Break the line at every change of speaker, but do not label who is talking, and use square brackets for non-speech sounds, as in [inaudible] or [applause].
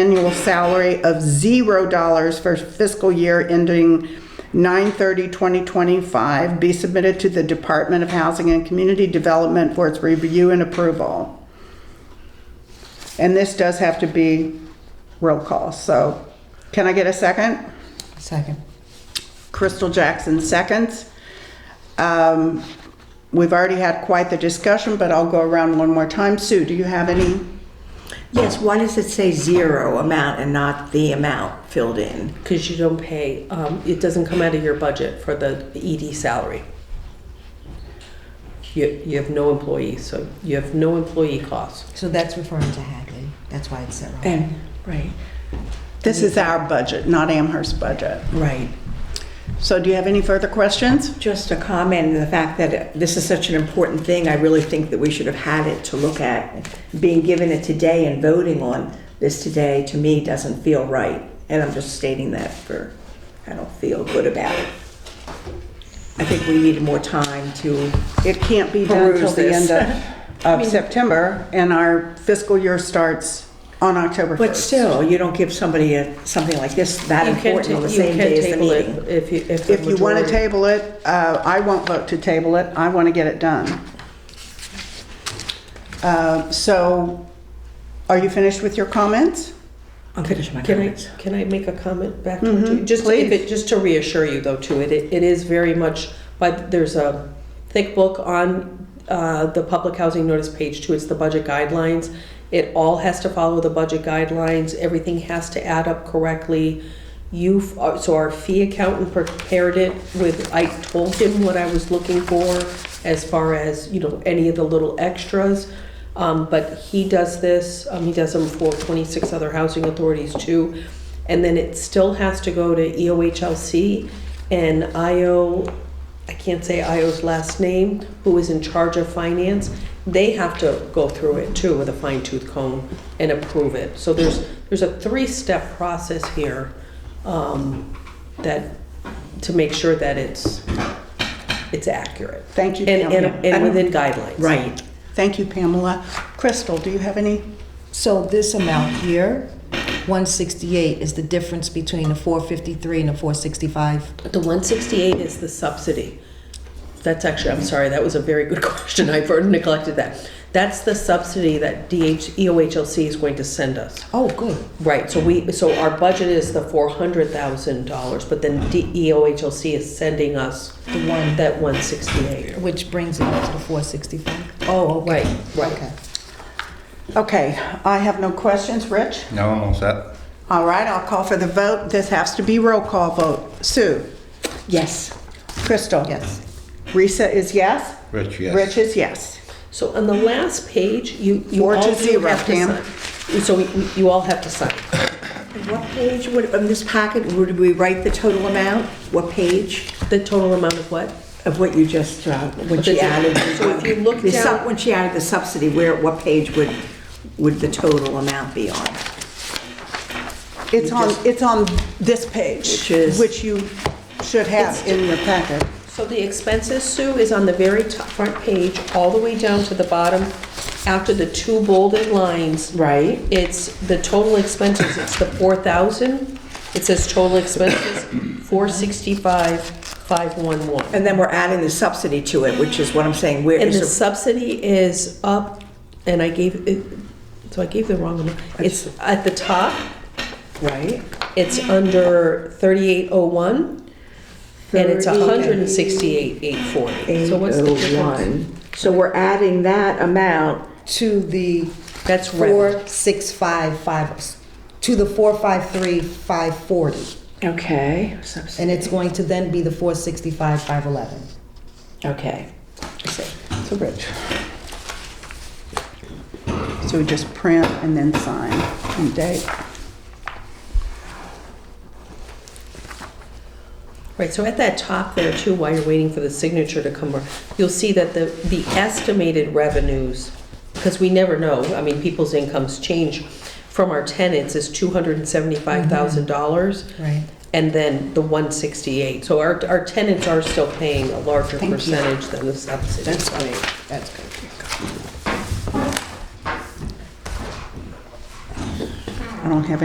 annual salary of $0 for fiscal year ending 9/30/2025 be submitted to the Department of Housing and Community Development for its review and approval. And this does have to be roll call, so can I get a second?
Second.
Crystal Jackson seconds. Um, We've already had quite the discussion, but I'll go around one more time. Sue, do you have any?
Yes, why does it say zero amount and not the amount filled in?
Because you don't pay, um, it doesn't come out of your budget for the ED salary. You, you have no employees, so you have no employee costs.
So that's referring to Hadley. That's why it's set wrong.
And, right,
This is our budget, not Amherst's budget.
right.
So do you have any further questions?
Just a comment, and the fact that this is such an important thing, I really think that we should have had it to look at. Being given it today and voting on this today, to me, doesn't feel right. And I'm just stating that for, I don't feel good about it. I think we need more time to,
It can't be done till
Peruse
the end
this.
of, of September, and our fiscal year starts on October 1st.
but still, you don't give somebody a- something like this that
You can,
important
ta-
on the
you
same
can
day as the
table
meeting.
it if you, if the
If you want to
majority-
table it, uh, I won't vote to table it. I want to get it done. Uh, So are you finished with your comments?
I'm finishing my
Can I,
comments.
can I make a comment back to you? Just if it, just to reassure you though too, it, it is very much, but there's a thick book on, uh, the public housing notice page two, it's the budget guidelines. It all has to follow the budget guidelines, everything has to add up correctly. You, uh, so our fee accountant prepared it with, I told him what I was looking for as far as, you know, any of the little extras. Um, but he does this, um, he does them for twenty-six other housing authorities too. And then it still has to go to E EOHLC and IO, I can't say IO's last name, who is in charge of finance. They have to go through it too with a fine tooth comb and approve it. So there's, there's a three-step process here, um, that, to make sure that it's, it's accurate.
Thank you,
And,
Pamela.
and, and within guidelines.
Right.
Thank you, Pamela. Crystal, do you have any?
So this amount here, 168, is the difference between the 453 and the 465?
The one sixty-eight is the subsidy. That's actually, I'm sorry, that was a very good [laughs] question. I neglected that. That's the subsidy that E DH, EOHLC is going to send us.
Oh, good.
Right, so we, so our budget is the four hundred thousand dollars, but then D- E EOHLC is sending us
The one,
that one sixty-eight.
which brings it up to the 465? Oh, okay.
Right, right.
Okay.
Okay, I have no questions. Rich?
No, I'm all set.
All right, I'll call for the vote. This has to be roll call vote. Sue?
Yes.
Crystal?
Yes.
Risa is yes?
Rich, yes.
Rich is yes.
So on the last page, you, you
Four
all
to
do
zero,
have to
Pam.
sign. So you- you all have to sign.
What page would, on this packet, would we write the total amount? What page
The total amount of what?
of what you just, uh, when she
Does it-
added?
so if you look
the sub-
down-
When she added the subsidy, where, what page would, would the total amount be on?
It's on, it's on this page,
Which is-
which you should have
It's-
in your packet.
So the expenses, Sue, is on the very top front page, all the way down to the bottom, after the two bolded lines.
Right.
It's the total expenses, it's the four thousand, it says total expenses, four sixty-five, five one one.
And then we're adding the subsidy to it, which is what I'm saying, where
And the
is, the-
subsidy is up, and I gave, it so I gave the wrong amount. It's at the top,
right?
it's under thirty-eight oh one, and it's a hundred and sixty-eight, eight forty. So what's the difference?
801. So we're adding that amount,
To the
That's rent.
4655, to the 453540.
okay, subsidy,
And it's going to then be the 465,511.
okay.
So Rich. So we just print and then sign and date.
Right, so at that top there too, while you're waiting for the signature to come, over, you'll see that the, the estimated revenues, because we never know, I mean, people's incomes change, from our tenants is two hundred and seventy-five thousand dollars.
Right.
And then the one sixty-eight, so our, our tenants are still paying a larger percentage than the subsidy.
That's great. That's good.
I don't have